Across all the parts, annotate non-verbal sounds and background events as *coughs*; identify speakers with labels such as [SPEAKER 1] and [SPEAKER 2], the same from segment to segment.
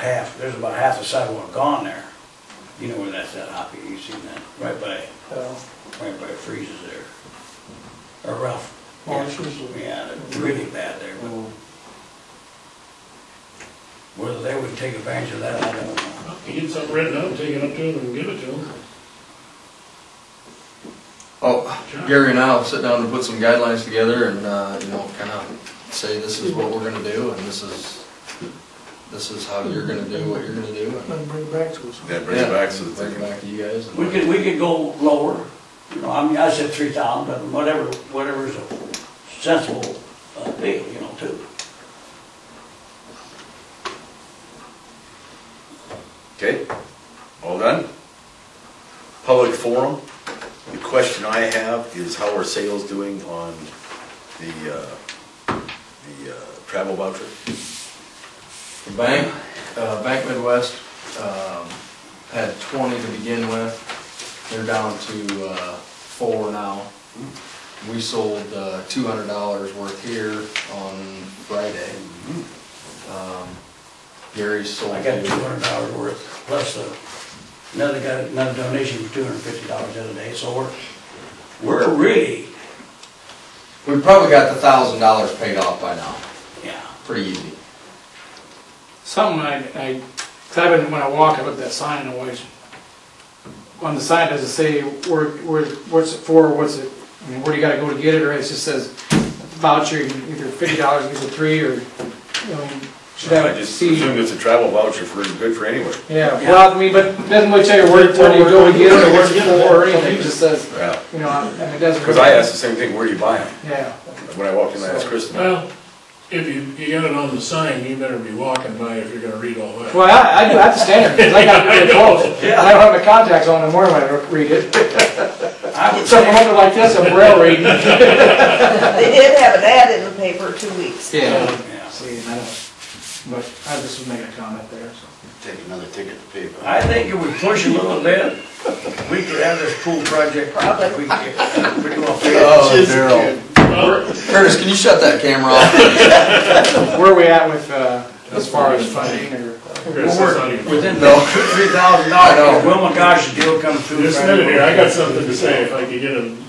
[SPEAKER 1] half, there's about half the sidewalk gone there. You know where that's at, Hoppy, you seen that, right by,
[SPEAKER 2] uh,
[SPEAKER 1] right by freezes there. Or Ralph.
[SPEAKER 2] marshes.
[SPEAKER 1] Yeah, they're really bad there, but whether they would take advantage of that, I don't know.
[SPEAKER 3] You Get something written up, take it up to them and give it to them.
[SPEAKER 4] Oh, Gary and I will sit down and put some guidelines together and, uh, you know, kind of say this is what we're gonna do and this is, this is how you're gonna do what you're gonna do. and-
[SPEAKER 2] Then bring it back to us.
[SPEAKER 5] Yeah, bring it back so that
[SPEAKER 4] Bring
[SPEAKER 5] they
[SPEAKER 4] it
[SPEAKER 5] can,
[SPEAKER 4] back to you guys.
[SPEAKER 1] We could, we could go lower, you know, I mean, I said three thousand, but whatever, whatever's a sensible uh, deal, you know, too.
[SPEAKER 5] okay, all done? Public forum, the question I have is how are sales doing on the, uh, the uh, travel voucher?
[SPEAKER 4] Bank, uh, Bank Midwest, um, had twenty to begin with. They're down to, uh, four now. We sold, uh, two hundred dollars worth here on Friday.
[SPEAKER 5] Mm-hmm.
[SPEAKER 4] Um, Gary sold.
[SPEAKER 1] I got two hundred dollars worth, plus uh, another guy, another donation for two hundred and fifty dollars the other day, so we're, we're really,
[SPEAKER 4] We probably got the thousand dollars paid off by now,
[SPEAKER 1] yeah.
[SPEAKER 4] pretty easy.
[SPEAKER 6] Something I, I, 'cause I've been, when I walk, I look at that sign and always, on the sign, does it say where, where, what's it for, what's it, I mean, where do you gotta go to get it, or it just says voucher, you can either fifty dollars, you get three, or, you know, should
[SPEAKER 5] I
[SPEAKER 6] have a
[SPEAKER 5] just
[SPEAKER 6] C.
[SPEAKER 5] assume it's a travel voucher for, good for anywhere.
[SPEAKER 6] Yeah, well, I mean, but it doesn't really tell you where, where do you go to get it, or what's it for, or anything, it just says,
[SPEAKER 5] Yeah,
[SPEAKER 6] you know, I mean, it doesn't.
[SPEAKER 5] because I asked the same thing, where do you buy them?
[SPEAKER 6] Yeah,
[SPEAKER 5] When I walked in, I asked Kristen.
[SPEAKER 3] Well, if you, you got it on the sign, you better be walking by if you're gonna read all that.
[SPEAKER 6] well, I, I do have to stand there, 'cause I got
[SPEAKER 1] *laughs*
[SPEAKER 6] pretty close, and I don't have my contacts on anymore when I read it,
[SPEAKER 1] I would
[SPEAKER 6] so I'm
[SPEAKER 1] say,
[SPEAKER 6] over like this, I'm rail
[SPEAKER 1] *laughs*
[SPEAKER 6] reading.
[SPEAKER 7] They did have an ad in the paper two weeks.
[SPEAKER 4] Yeah.
[SPEAKER 1] yeah,
[SPEAKER 6] See, and I don't, but I just was making a comment there, so.
[SPEAKER 8] Take another ticket to pay, but
[SPEAKER 1] I think if we push a little bit, we could have this pool project, probably, we could get pretty well figured out.
[SPEAKER 4] Oh, Daryl. Curtis, can you shut that camera off?
[SPEAKER 6] Where are we at with, uh, as far as funding or?
[SPEAKER 3] Chris, that's not even-
[SPEAKER 1] Within the three thousand dollars, Wilma Gosh deal comes through.
[SPEAKER 3] Just a minute here, I got something to say if I could get him.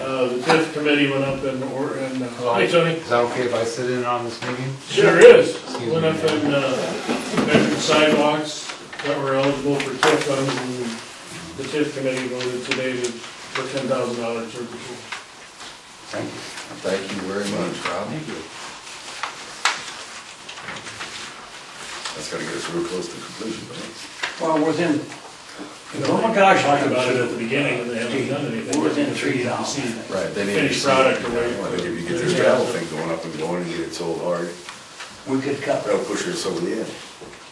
[SPEAKER 3] Uh, the TIF committee went up and, or, and, uh, hi Tony,
[SPEAKER 9] Is that okay if I sit in on this meeting?
[SPEAKER 3] sure is.
[SPEAKER 9] Excuse
[SPEAKER 3] Went
[SPEAKER 9] me.
[SPEAKER 3] up and, uh, measured sidewalks that were eligible for TIF funds and the TIF committee voted today to, for ten thousand dollars for the pool.
[SPEAKER 4] Thank you very much, Rob.
[SPEAKER 5] That's gotta get us real close to conclusion, but
[SPEAKER 1] Well, within, Wilma Gosh,
[SPEAKER 3] Talked
[SPEAKER 1] like
[SPEAKER 3] about it at the beginning and they haven't done anything.
[SPEAKER 1] We're within three dollars.
[SPEAKER 4] Right, they need to
[SPEAKER 3] Finished
[SPEAKER 4] see-
[SPEAKER 3] product or
[SPEAKER 5] I think
[SPEAKER 3] whatever.
[SPEAKER 5] if you get this travel thing going up and going and get it sold hard,
[SPEAKER 1] we could cut
[SPEAKER 5] that'll push us over the edge.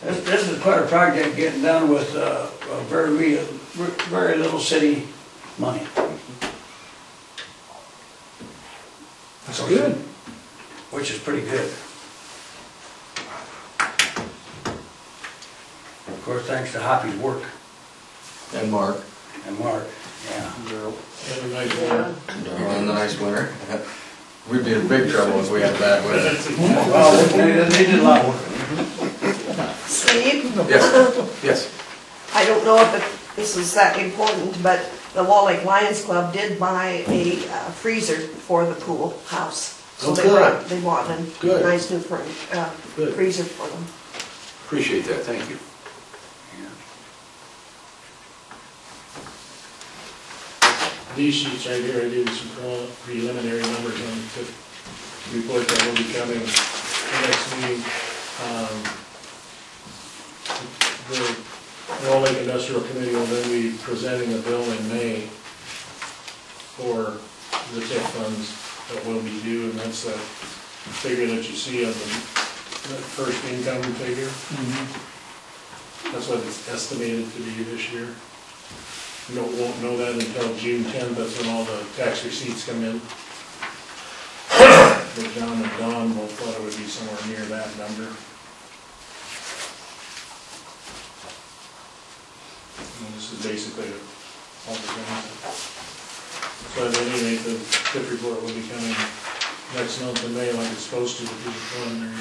[SPEAKER 1] This, this is quite a project getting done with, uh, uh, very, re- very little city money.
[SPEAKER 6] That's good.
[SPEAKER 1] Which is pretty good. Of course, thanks to Hoppy's work
[SPEAKER 4] And Mark,
[SPEAKER 1] and Mark, yeah.
[SPEAKER 3] Had a nice one.
[SPEAKER 4] Daryl, in the nice winter. *laughs* We'd be in big trouble if we had bad weather.
[SPEAKER 3] That's exactly-
[SPEAKER 1] Well, they, they did a lot of work.
[SPEAKER 7] Steve,
[SPEAKER 4] Yes, yes.
[SPEAKER 7] I don't know if it- this is that important, but the Wall Lake Lions Club did buy a uh, freezer for the pool house. So
[SPEAKER 4] Oh,
[SPEAKER 7] they
[SPEAKER 4] good.
[SPEAKER 7] want, they want a
[SPEAKER 4] Good.
[SPEAKER 7] nice new furn- uh,
[SPEAKER 4] Good.
[SPEAKER 7] freezer for them.
[SPEAKER 4] Appreciate that, thank you.
[SPEAKER 3] These sheets right here, I did some pre- preliminary numbers on the TIF report that will be coming the next meeting. Um, The Wall Lake Industrial Committee will then be presenting a bill in May for the TIF funds that will be due, and that's that figure that you see on the that first income figure. That's what it's estimated to be this year. We don't, won't know that until June tenth, that's when all the tax receipts come in. *coughs* But John and Don both thought it would be somewhere near that number. And this is basically all the things. So I believe the TIF report will be coming next month in May like it's supposed to, if you want, there,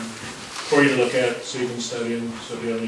[SPEAKER 3] for you to look at, so you can study and, so if you have any